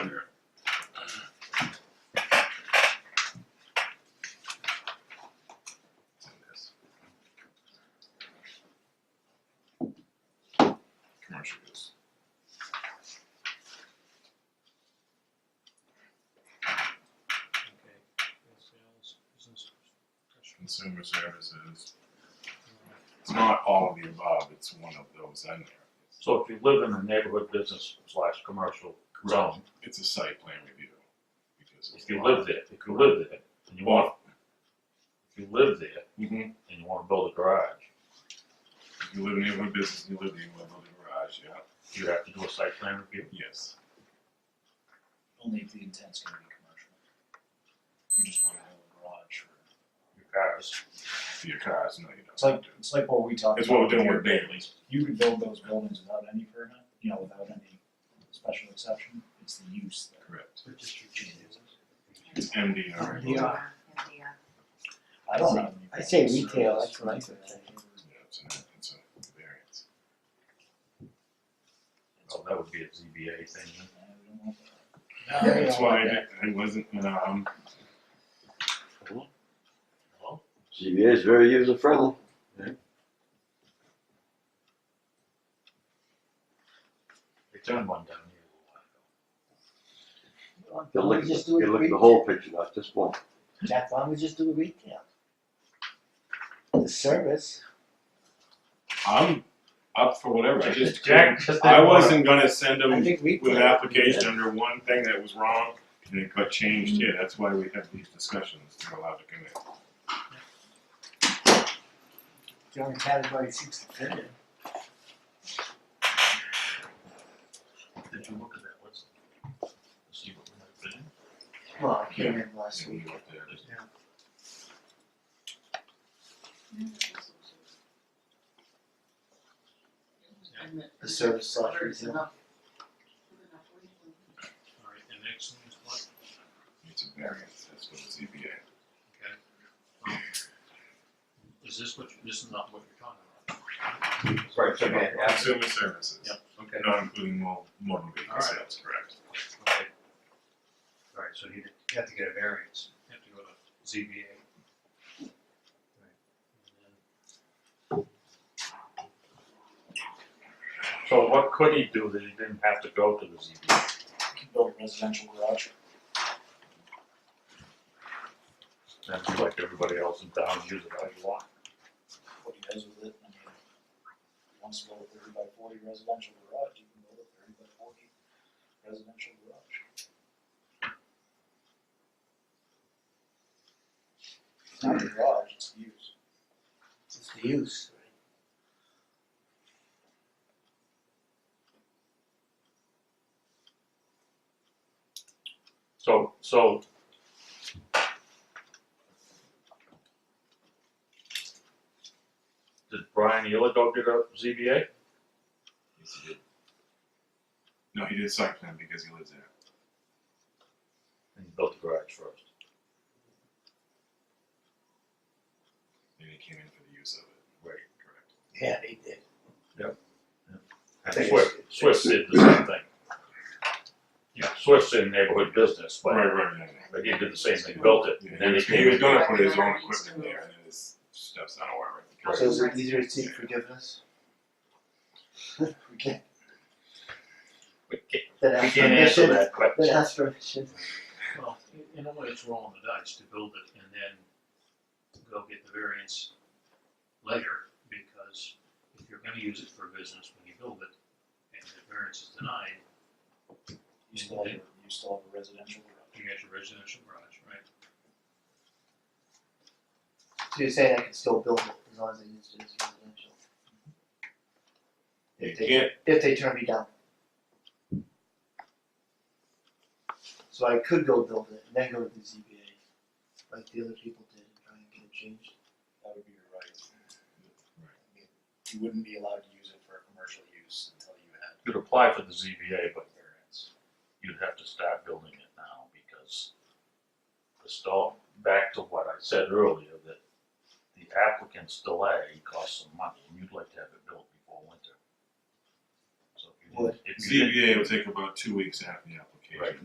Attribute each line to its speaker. Speaker 1: Commercial use.
Speaker 2: Okay, sales, business, professional.
Speaker 1: Consumer services. It's not all of the above, it's one of those in there.
Speaker 3: So if you live in a neighborhood business slash commercial zone,
Speaker 1: It's a site plan review. because it's
Speaker 3: if you
Speaker 1: not-
Speaker 3: live there, if you live there, and you want, if you live there
Speaker 1: Mhm.
Speaker 3: and you wanna build a garage,
Speaker 1: If you live in neighborhood business, you live in neighborhood building garage, yeah,
Speaker 3: you have to do a site plan review.
Speaker 1: yes.
Speaker 4: Only if the intent's gonna be commercial. You just wanna have a garage or.
Speaker 3: Your cars,
Speaker 1: For your cars, no, you don't.
Speaker 4: It's like, it's like what we talked about.
Speaker 1: It's what we're doing
Speaker 4: here,
Speaker 1: with Bailey's.
Speaker 4: You could build those buildings without any permit, you know, without any special exception, it's the use that
Speaker 1: Correct.
Speaker 4: changes.
Speaker 1: It's MDR.
Speaker 5: Yeah.
Speaker 6: Yeah.
Speaker 4: I don't have any.
Speaker 5: I say
Speaker 4: preference.
Speaker 5: retail, that's what I say.
Speaker 1: Yeah, it's an, it's a variance.
Speaker 3: well, that would be a ZBA thing,
Speaker 4: Yeah, we don't want that.
Speaker 5: Yeah,
Speaker 1: That's
Speaker 5: yeah.
Speaker 1: why it, it wasn't, um,
Speaker 7: CBA is very user friendly.
Speaker 3: they turned one down here. a while ago.
Speaker 7: You
Speaker 5: Why
Speaker 7: look,
Speaker 5: don't
Speaker 7: at
Speaker 5: we
Speaker 7: the-
Speaker 5: just do it
Speaker 7: you look at the
Speaker 5: retail?
Speaker 7: whole picture, not just one.
Speaker 5: Jack, why don't we just do it retail? The service,
Speaker 1: I'm up for whatever, I just.
Speaker 3: Jack just didn't
Speaker 1: I
Speaker 3: wanna-
Speaker 1: wasn't gonna send
Speaker 5: I
Speaker 1: them
Speaker 5: think retail.
Speaker 1: with an application under one thing that was wrong, and it got changed
Speaker 5: Mm-hmm.
Speaker 1: here, that's why we have these discussions, they're allowed to come in.
Speaker 5: The only category seems to fit it.
Speaker 3: Did you look at that list? See what we might fit in?
Speaker 5: Well, I came in last
Speaker 1: And
Speaker 5: week.
Speaker 1: we went there.
Speaker 5: The service slash retail.
Speaker 2: Alright, the next one is what?
Speaker 1: It's a variance, that's what the ZBA.
Speaker 2: Okay. Um, Is this what, you- this is not what you're talking about?
Speaker 7: Right, so man,
Speaker 1: Consumer services.
Speaker 2: Yep, okay.
Speaker 1: Not including mo- motor vehicle
Speaker 2: Alright.
Speaker 1: sales, correct?
Speaker 2: Okay. Alright, so you you have to get a variance, you have to go to ZBA.
Speaker 3: So what could he do that he didn't have to go to the ZBA?
Speaker 4: You can build a residential garage,
Speaker 3: And be like everybody else in town, use it as you want.
Speaker 4: what he does with it, I mean, if he wants to build a thirty by forty residential garage, you can build a thirty by forty residential garage. It's not a garage, it's the use.
Speaker 5: It's the use.
Speaker 3: So, so. Did Brian Ealer go get a ZBA?
Speaker 1: Yes, he did. No, he did site plan because he lives there.
Speaker 3: And he built the garage first.
Speaker 1: And he came in for the use of it. Right. Correct.
Speaker 5: Yeah, they did.
Speaker 3: And
Speaker 5: Thanks.
Speaker 3: Swift, Swift did the same thing. Yeah, Swift did neighborhood business,
Speaker 1: Right,
Speaker 3: but,
Speaker 1: right, yeah, yeah.
Speaker 3: but he did the same thing, built it,
Speaker 1: Yeah, he
Speaker 3: and then he
Speaker 1: was,
Speaker 3: came
Speaker 1: he was
Speaker 3: in.
Speaker 1: gonna put his own equipment there, and then his stuff's not aware of
Speaker 5: So
Speaker 1: it.
Speaker 5: is it easier to seek forgiveness? We can't,
Speaker 3: We can't,
Speaker 5: that
Speaker 3: we
Speaker 5: has
Speaker 3: can't answer
Speaker 5: permission,
Speaker 3: that question.
Speaker 5: that has permission.
Speaker 2: Well, i- in a way, it's rolling the dice to build it and then go get the variance later, because if you're gonna use it for business when you build it, and the variance is denied,
Speaker 4: You still have, you still have a residential garage.
Speaker 2: you get your residential garage, right?
Speaker 5: So you're saying I can still build it as long as I use it as residential?
Speaker 1: You
Speaker 5: If they-
Speaker 1: can't-
Speaker 5: If they turn me down. So I could go build it and then go to the ZBA, like the other people did, and try and get it changed.
Speaker 4: That would be your right. I mean, You wouldn't be allowed to use it for commercial use until you had
Speaker 3: You'd apply for the ZBA, but
Speaker 4: variance.
Speaker 3: you'd have to start building it now because the stall, back to what I said earlier, that the applicant's delay costs some money and you'd like to have it built before winter. So if you didn't- if you didn't-
Speaker 1: ZBA will take about two weeks after the application.
Speaker 3: Right.